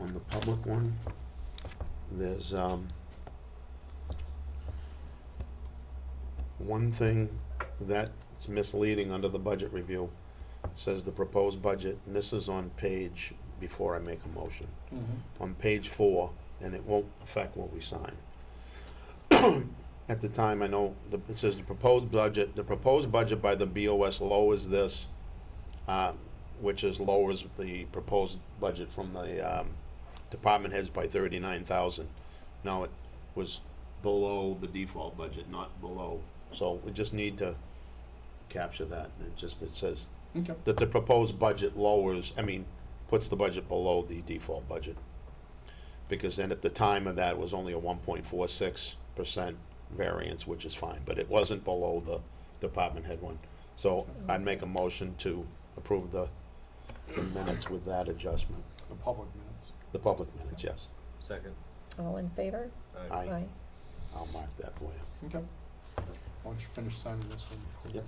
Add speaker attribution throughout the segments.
Speaker 1: on the public one, there's, um, one thing that's misleading under the budget review, says the proposed budget, and this is on page, before I make a motion, on page four, and it won't affect what we sign. At the time, I know, the- it says the proposed budget, the proposed budget by the BOS lowers this, uh, which is lowers the proposed budget from the um, department heads by thirty-nine thousand. Now, it was below the default budget, not below, so we just need to capture that. It just, it says
Speaker 2: Okay.
Speaker 1: that the proposed budget lowers, I mean, puts the budget below the default budget. Because then at the time of that it was only a one point four six percent variance, which is fine, but it wasn't below the department head one. So I'd make a motion to approve the the minutes with that adjustment,
Speaker 2: The public minutes.
Speaker 1: the public minutes, yes.
Speaker 3: Second.
Speaker 4: All in favor?
Speaker 3: Aye.
Speaker 1: I, I'll mark that for you,
Speaker 2: Okay. Why don't you finish signing this one?
Speaker 1: Yep.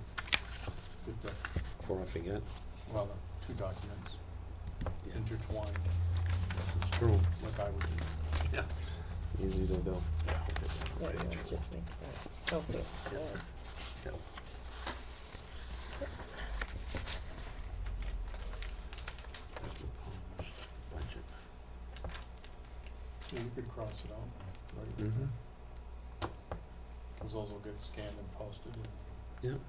Speaker 2: Good doc,
Speaker 1: before I forget.
Speaker 2: well, the two documents
Speaker 1: Yeah.
Speaker 2: intertwined,
Speaker 1: This is true.
Speaker 2: like I would do.
Speaker 1: Yeah. Easy to do. Yeah, I'll get that
Speaker 4: Yeah,
Speaker 1: on
Speaker 4: you
Speaker 1: page
Speaker 4: wanna
Speaker 1: four.
Speaker 4: just make that. Okay, good.
Speaker 1: Yeah.
Speaker 2: Yeah, you could cross it out, right?
Speaker 1: Mhm.
Speaker 2: Cause those will get scanned and posted.
Speaker 1: Yep.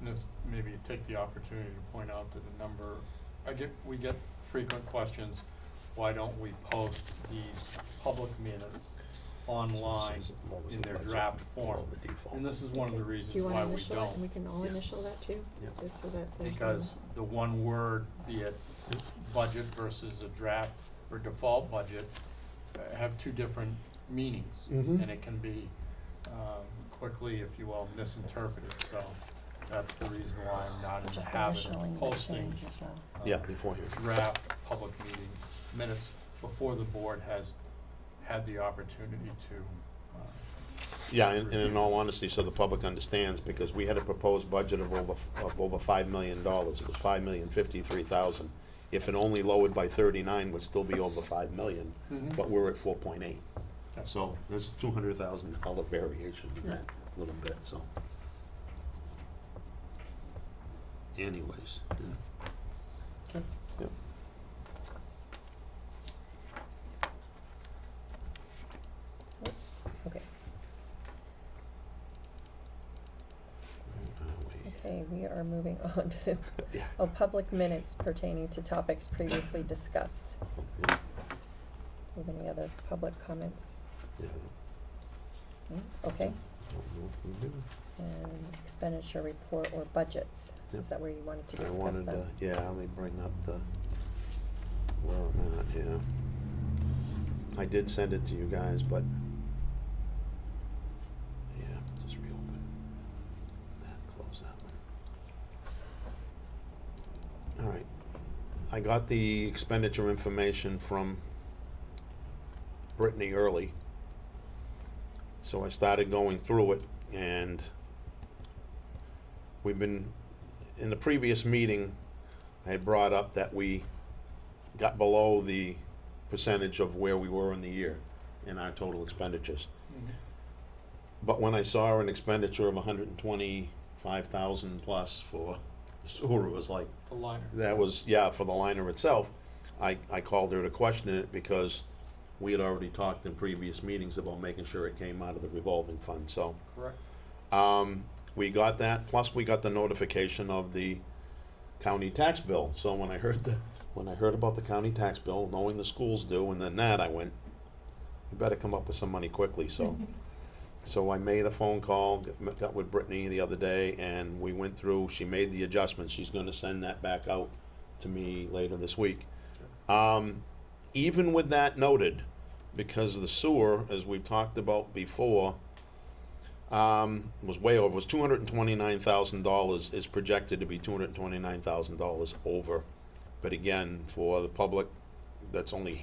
Speaker 2: And this, maybe take the opportunity to point out that the number, I get, we get frequent questions, why don't we post these public minutes online?
Speaker 1: Says it lowers
Speaker 2: in
Speaker 1: the
Speaker 2: their
Speaker 1: budget
Speaker 2: draft
Speaker 1: below
Speaker 2: form.
Speaker 1: the default.
Speaker 2: And this is one of the
Speaker 4: Okay.
Speaker 2: reasons
Speaker 4: Do you
Speaker 2: why
Speaker 4: wanna
Speaker 2: we
Speaker 4: initial that, and we
Speaker 2: don't,
Speaker 4: can all
Speaker 1: Yeah.
Speaker 4: initial that too?
Speaker 1: Yep.
Speaker 4: Just so that there's.
Speaker 2: because the one word, be it budget versus a draft or default budget, uh, have two different meanings.
Speaker 1: Mhm.
Speaker 2: And it can be, um, quickly, if you will, misinterpreted, so that's the reason why I'm not in the
Speaker 4: Just
Speaker 2: habit
Speaker 4: initialing
Speaker 2: of
Speaker 4: the
Speaker 2: posting.
Speaker 4: change as well.
Speaker 2: uh,
Speaker 1: Yeah, before you.
Speaker 2: Draft public meeting minutes before the board has had the opportunity to, uh,
Speaker 1: Yeah, and, and in all honesty, so the public understands, because we had a proposed budget of over, of over five million dollars, it was five million fifty-three thousand. If it only lowered by thirty-nine, would still be over five million,
Speaker 2: Mhm.
Speaker 1: but we're at four point eight.
Speaker 2: Yeah.
Speaker 1: So there's two hundred thousand dollar variation in that little bit, so. Anyways, yeah.
Speaker 2: Okay.
Speaker 1: Yep.
Speaker 4: Okay,
Speaker 1: Where are we?
Speaker 4: okay, we are moving on to,
Speaker 1: Uh, Yeah.
Speaker 4: oh, public minutes pertaining to topics previously discussed.
Speaker 1: Yeah,
Speaker 4: Have any other public comments?
Speaker 1: yeah.
Speaker 4: No? Okay,
Speaker 1: Don't know if we do.
Speaker 4: and expenditure report or budgets,
Speaker 1: Yep.
Speaker 4: is that where you wanted to
Speaker 1: I
Speaker 4: discuss them?
Speaker 1: wanted to, yeah, let me bring up the, where I'm at, yeah. I did send it to you guys, but, yeah, just reopen. That, close that one. All right, I got the expenditure information from Brittany early. So I started going through it and we've been in the previous meeting, I had brought up that we got below the percentage of where we were in the year in our total expenditures. But when I saw an expenditure of hundred and twenty-five thousand plus for the sewer, it was like,
Speaker 2: the liner.
Speaker 1: that was, yeah, for the liner itself, I, I called her to question it because we had already talked in previous meetings about making sure it came out of the revolving fund, so.
Speaker 2: Correct.
Speaker 1: Um, we got that, plus we got the notification of the county tax bill. So when I heard the, when I heard about the county tax bill, knowing the schools do, and then that, I went, you better come up with some money quickly, so. So I made a phone call, got- got with Brittany the other day, and we went through, she made the adjustment, she's gonna send that back out to me later this week. Um, even with that noted, because the sewer, as we've talked about before, um, was way over, was two hundred and twenty-nine thousand dollars, is projected to be two hundred and twenty-nine thousand dollars over. But again, for the public that's only